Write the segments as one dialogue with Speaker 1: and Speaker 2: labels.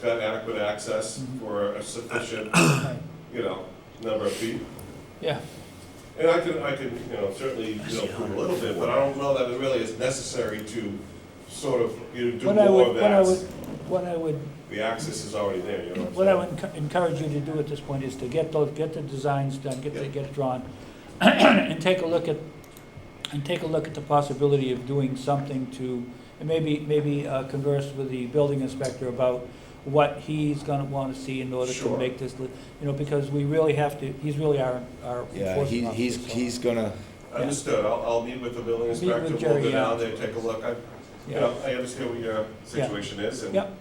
Speaker 1: got adequate access
Speaker 2: Mhm.
Speaker 1: for a sufficient,
Speaker 2: Right.
Speaker 1: you know, number of people.
Speaker 2: Yeah,
Speaker 1: And I can, I can, you know, certainly, you know, prove a little bit, but I don't know that it really is necessary to sort of, you know, do
Speaker 2: what I
Speaker 1: more
Speaker 2: would,
Speaker 1: of
Speaker 2: what I would,
Speaker 1: that.
Speaker 2: what I would,
Speaker 1: The access is already there, you know
Speaker 2: what
Speaker 1: what
Speaker 2: I
Speaker 1: I'm
Speaker 2: would encou- encourage you to do at this point is to get those, get the designs done, get the,
Speaker 1: Yeah.
Speaker 2: get it drawn, and take a look at, and take a look at the possibility of doing something to, and maybe, maybe uh, converse with the building inspector about what he's gonna wanna see in order to
Speaker 1: Sure.
Speaker 2: make this, li- you know, because we really have to, he's really our, our
Speaker 3: Yeah, he,
Speaker 2: enforcement officer.
Speaker 3: he's,
Speaker 2: so-
Speaker 3: he's gonna,
Speaker 1: saying? Understood, I'll, I'll meet with the building
Speaker 2: Meet with
Speaker 1: inspector, we'll
Speaker 2: Jerry,
Speaker 1: go
Speaker 2: yeah.
Speaker 1: down there, take a look, I, you
Speaker 2: Yeah.
Speaker 1: know, I understand what your situation is, and
Speaker 2: Yep.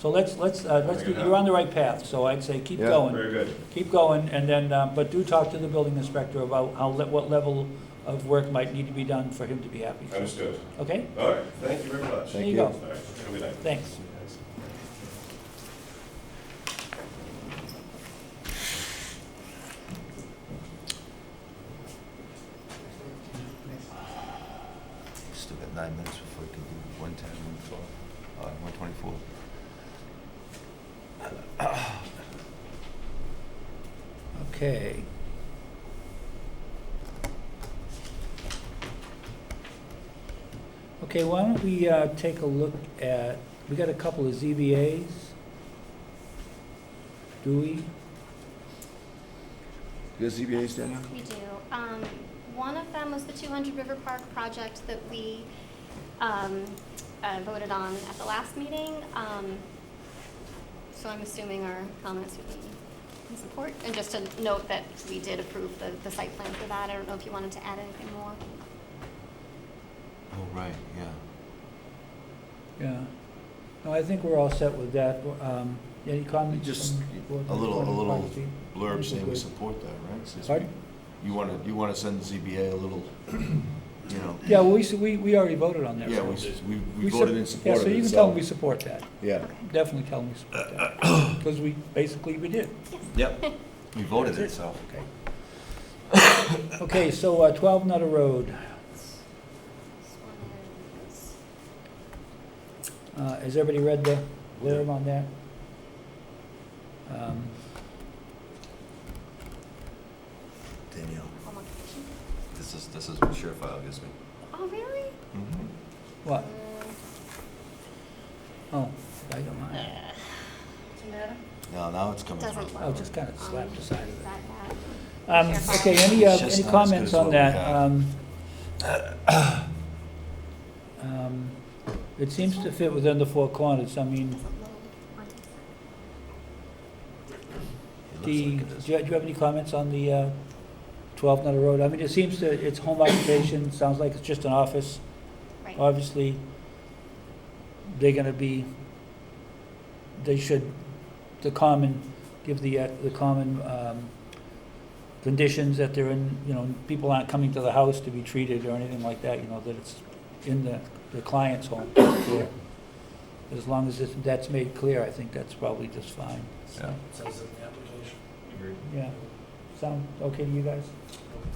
Speaker 2: So let's, let's, uh, let's,
Speaker 1: Make
Speaker 2: do-
Speaker 1: it
Speaker 2: you're on the right path, so I'd say keep
Speaker 3: Yeah.
Speaker 2: going.
Speaker 1: very good.
Speaker 2: keep going, and then, uh, but do talk to the building inspector about how, le- what level of work might need to be done for him to be happy.
Speaker 1: Understood.
Speaker 2: Okay?
Speaker 1: All right, thank you very much.
Speaker 2: There
Speaker 3: Thank
Speaker 2: you
Speaker 3: you.
Speaker 1: All
Speaker 2: go.
Speaker 1: right, have a good night.
Speaker 2: Thanks.
Speaker 3: still got nine minutes before we can do one ten, one twelve, uh, one twenty-four.
Speaker 2: Okay. Okay, why don't we uh, take a look at, we got a couple of ZBAs. Do we?
Speaker 3: You got ZBAs, Daniel?
Speaker 4: We do. Um, one of them was the two hundred River Park project that we, um, uh, voted on at the last meeting. Um, so I'm assuming our comments would be in support. And just to note that we did approve the, the site plan for that. I don't know if you wanted to add anything more.
Speaker 3: Oh, right, yeah.
Speaker 2: Yeah. No, I think we're all set with that. Um, Any comments?
Speaker 3: Just
Speaker 2: from-
Speaker 3: a little- a little-
Speaker 2: Steve?
Speaker 3: Blurb saying we support that, right? Says we-
Speaker 2: Pardon?
Speaker 3: You wanna, you wanna send the ZBA a little, you know,
Speaker 2: Yeah, well, we, s- we, we already voted on that.
Speaker 3: yeah,
Speaker 2: right?
Speaker 3: we, s- we, we
Speaker 2: We sup-
Speaker 3: voted in support of it, so.
Speaker 2: Yeah, so you can tell them we support that.
Speaker 3: Yeah,
Speaker 4: Okay.
Speaker 2: Definitely tell them we support that. Because we, basically, we did.
Speaker 3: yep, we voted it,
Speaker 2: That's
Speaker 3: so.
Speaker 2: Okay. Okay, so uh, 12 Nutter Road,
Speaker 4: Just wanted to-
Speaker 2: Uh, has everybody read the blurb on that? Um,
Speaker 3: Danielle,
Speaker 4: oh, my gosh.
Speaker 5: This is, this is what Surefile gives me.
Speaker 4: Oh, really?
Speaker 3: Mm-hmm.
Speaker 2: What?
Speaker 4: Uh,
Speaker 2: Oh, I don't mind.
Speaker 3: no, now it's coming
Speaker 4: Doesn't
Speaker 3: through.
Speaker 4: look-
Speaker 2: I'll Oh, just kind of slap the side of it.
Speaker 4: that bad.
Speaker 2: Um, Okay, any, uh,
Speaker 3: It's
Speaker 2: any
Speaker 3: just not as good
Speaker 2: comments
Speaker 3: as
Speaker 2: on
Speaker 3: what we
Speaker 2: that?
Speaker 3: had.
Speaker 2: Um, um, It seems to fit within the four corners. I mean,
Speaker 4: Doesn't load on this.
Speaker 2: The, do you do you have any comments on the uh, 12 Nutter Road? I mean, it seems that it's home occupation, sounds like it's just an office.
Speaker 4: Right.
Speaker 2: Obviously, they're gonna be, they should, the common, give the, uh, the common um, conditions that they're in, you know, people aren't coming to the house to be treated or anything like that, you know, that it's in the, the client's home. As long as it's- that's made clear, I think that's probably just fine.
Speaker 5: Yeah.
Speaker 6: Says in the application,
Speaker 2: Yeah, sound okay to you guys?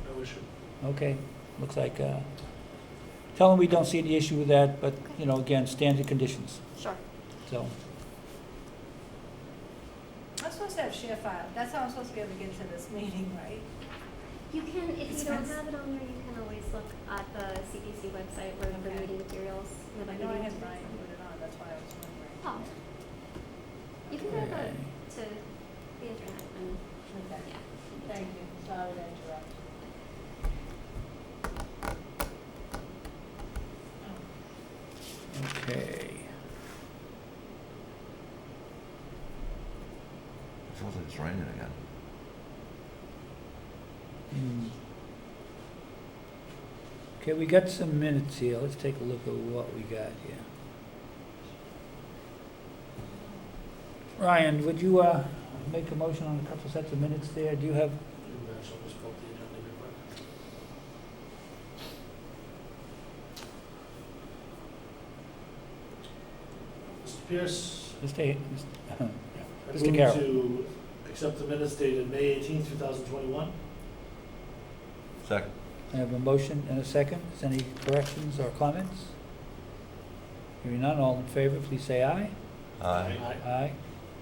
Speaker 6: no- no issue.
Speaker 2: Okay, looks like, uh, tell them we don't see any issue with that, but, you know, again, standard conditions,
Speaker 4: Sure.
Speaker 2: so.
Speaker 7: I'm supposed to have share file, that's how I'm supposed to be able to get to this meeting, right?
Speaker 4: You can, if you
Speaker 7: It's
Speaker 4: don't
Speaker 7: fast.
Speaker 4: have it on there, you can always look at the CPC website where the
Speaker 7: Okay.
Speaker 4: meeting materials. and the
Speaker 7: I know I
Speaker 4: meeting
Speaker 7: had mine
Speaker 4: materials.
Speaker 7: put it on, uh, that's why I was wondering.
Speaker 4: Oh. You can go to, to the internet and,
Speaker 7: Okay,
Speaker 4: yeah.
Speaker 7: thank you, sorry to interrupt. Oh.
Speaker 2: Okay.
Speaker 3: Sounds like it's raining again.
Speaker 2: Hmm. Okay, we got some minutes here, let's take a look at what we got here. Ryan, would you, uh, make a motion on a couple sets of minutes there? Do you have,
Speaker 6: You guys will just vote the agenda real quick. Mr. Pierce,
Speaker 2: Mr. Ha-
Speaker 6: I
Speaker 2: Mr.
Speaker 6: move
Speaker 2: Carroll.
Speaker 6: to accept the minutes dated May eighteenth, two thousand twenty-one.
Speaker 5: Second.
Speaker 2: I have a motion and a second. Is any corrections or comments? Hearing none, all in favor, please say aye.
Speaker 6: Uh,
Speaker 5: Aye.
Speaker 2: Aye.